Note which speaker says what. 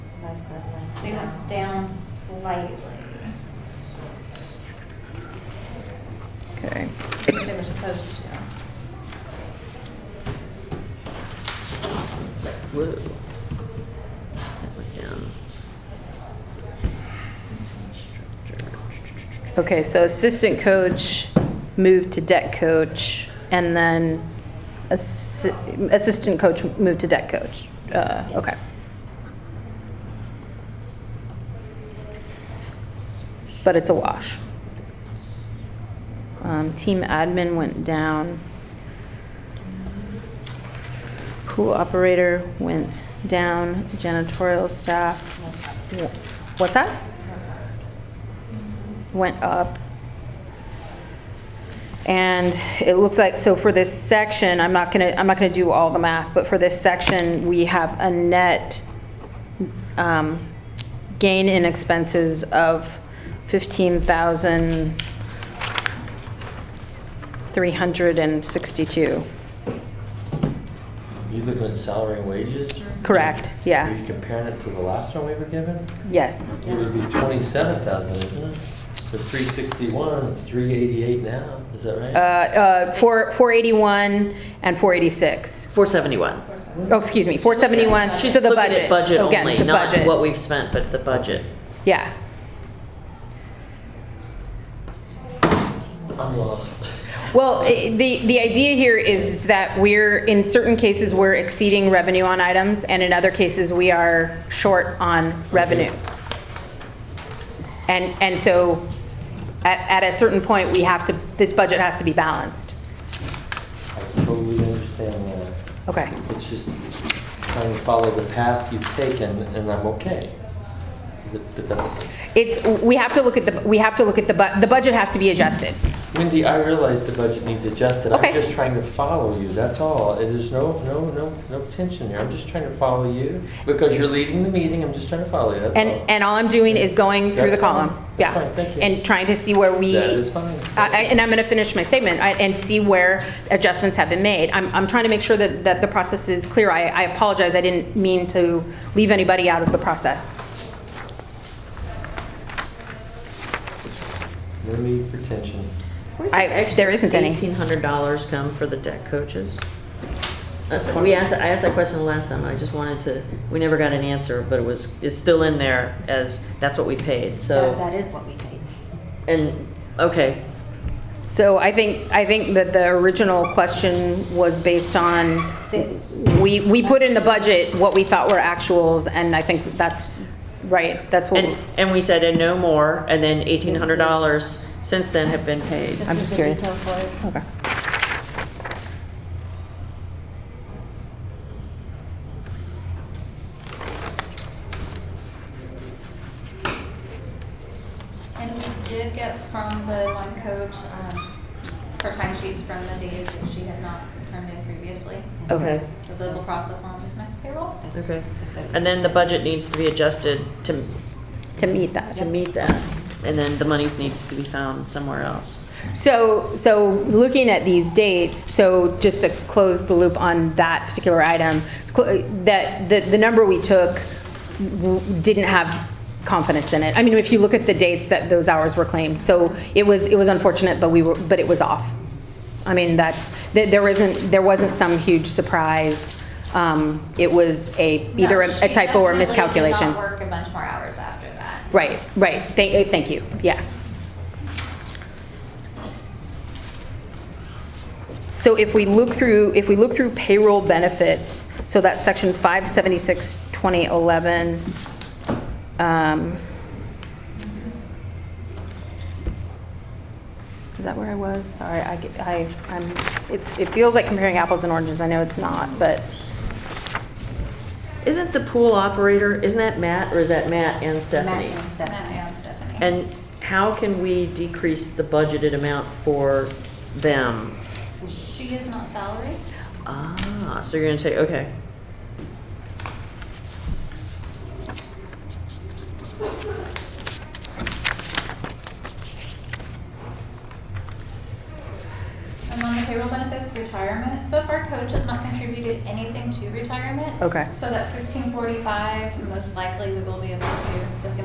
Speaker 1: They went down slightly.
Speaker 2: Okay.
Speaker 1: They were supposed to.
Speaker 2: Whoa. That went down. Okay, so assistant coach moved to deck coach, and then assi- assistant coach moved to deck coach. Uh, okay. But it's a wash. Um, team admin went down. Pool operator went down, janitorial staff, w- what's that? Went up. And it looks like, so for this section, I'm not gonna, I'm not gonna do all the math, but for this section, we have a net um, gain in expenses of 15,362.
Speaker 3: You looking at salary and wages?
Speaker 2: Correct,
Speaker 3: Are
Speaker 2: yeah,
Speaker 3: you comparing it to the last one we were given?
Speaker 2: yes.
Speaker 3: It would be twenty-seven thousand, isn't it? It's three sixty-one, it's three eighty-eight now, is that
Speaker 2: Uh,
Speaker 3: right?
Speaker 2: uh, four- 481 and 486.
Speaker 4: 471.
Speaker 2: Oh, excuse me, 471, she said the
Speaker 4: Looking
Speaker 2: budget.
Speaker 4: at budget
Speaker 2: Again,
Speaker 4: only,
Speaker 2: the
Speaker 4: not
Speaker 2: budget.
Speaker 4: what we've spent, but the budget.
Speaker 2: Yeah.
Speaker 3: I'm lost.
Speaker 2: Well, i- the, the idea here is that we're, in certain cases, we're exceeding revenue on items, and in other cases, we are short on revenue. And, and so at, at a certain point, we have to, this budget has to be balanced.
Speaker 3: I totally understand that.
Speaker 2: Okay,
Speaker 3: It's just trying to follow the path you've taken, and I'm okay. But but that's,
Speaker 2: it's, we have to look at the, we have to look at the, bu- the budget has to be adjusted.
Speaker 3: Wendy, I realize the budget needs adjusted.
Speaker 2: Okay.
Speaker 3: I'm just trying to follow you, that's all. There's no, no, no, no tension here. I'm just trying to follow you because you're leading the meeting. I'm just trying to follow you, that's all.
Speaker 2: And, and all I'm doing is going through the
Speaker 3: That's fine.
Speaker 2: column.
Speaker 3: That's
Speaker 2: Yeah.
Speaker 3: fine. Thank you.
Speaker 2: And trying to see where we.
Speaker 3: That is fine.
Speaker 2: I- I- And I'm going to finish my statement I- and see where adjustments have been made. I'm, I'm trying to make sure that, that the process is clear. I, I apologize, I didn't mean to leave anybody out of the process.
Speaker 3: No need for tension.
Speaker 2: I- there isn't any.
Speaker 4: $1,800 come for the deck coaches. Uh, We asked, I asked that question last time, I just wanted to, we never got an answer, but it was, it's still in there as, that's what we paid,
Speaker 1: That-
Speaker 4: so.
Speaker 1: That is what we paid.
Speaker 4: And, okay,
Speaker 2: So I think, I think that the original question was based on,
Speaker 1: The-
Speaker 2: we, we put in the budget what we thought were actuals, and I think that's, right, that's what.
Speaker 4: and, and we said, and no more, and then $1,800 since then have been paid.
Speaker 1: This
Speaker 2: I'm
Speaker 1: is
Speaker 2: just
Speaker 1: the
Speaker 2: curious.
Speaker 1: detail for it.
Speaker 2: Okay.
Speaker 5: And we did get from the one coach, um, her time sheets from the days that she had not turned in previously.
Speaker 2: Okay.
Speaker 5: So those will process on this next payroll.
Speaker 1: This is
Speaker 4: Okay,
Speaker 1: the third.
Speaker 4: and then the budget needs to be adjusted to,
Speaker 2: To meet that.
Speaker 4: to meet that, and then the monies needs to be found somewhere else.
Speaker 2: So, so looking at these dates, so just to close the loop on that particular item, cl- that, the, the number we took w- didn't have confidence in it. I mean, if you look at the dates that those hours were claimed, so it was, it was unfortunate, but we were, but it was off. I mean, that's, th- there isn't, there wasn't some huge surprise. Um, It was a,
Speaker 5: No,
Speaker 2: either a
Speaker 5: she
Speaker 2: a typo or
Speaker 5: definitely did
Speaker 2: miscalculation.
Speaker 5: not work a bunch more hours after that.
Speaker 2: Right, right, thank, eh, thank you, yeah. So if we look through, if we look through payroll benefits, so that's section 576, 2011. um, Is that where I was? Sorry, I, get- I, I'm, it's- it feels like comparing apples and oranges, I know it's not, but.
Speaker 4: Isn't the pool operator, isn't that Matt, or is that Matt and Stephanie?
Speaker 1: Matt and
Speaker 5: Matt
Speaker 1: Stephanie.
Speaker 5: and Stephanie.
Speaker 4: And how can we decrease the budgeted amount for them?
Speaker 5: She is not salary.
Speaker 4: Ah, so you're gonna take, okay.
Speaker 5: And on the payroll benefits, retirement, so far coach has not contributed anything to retirement.
Speaker 2: Okay.
Speaker 5: So that sixteen forty-five, most likely we will be able to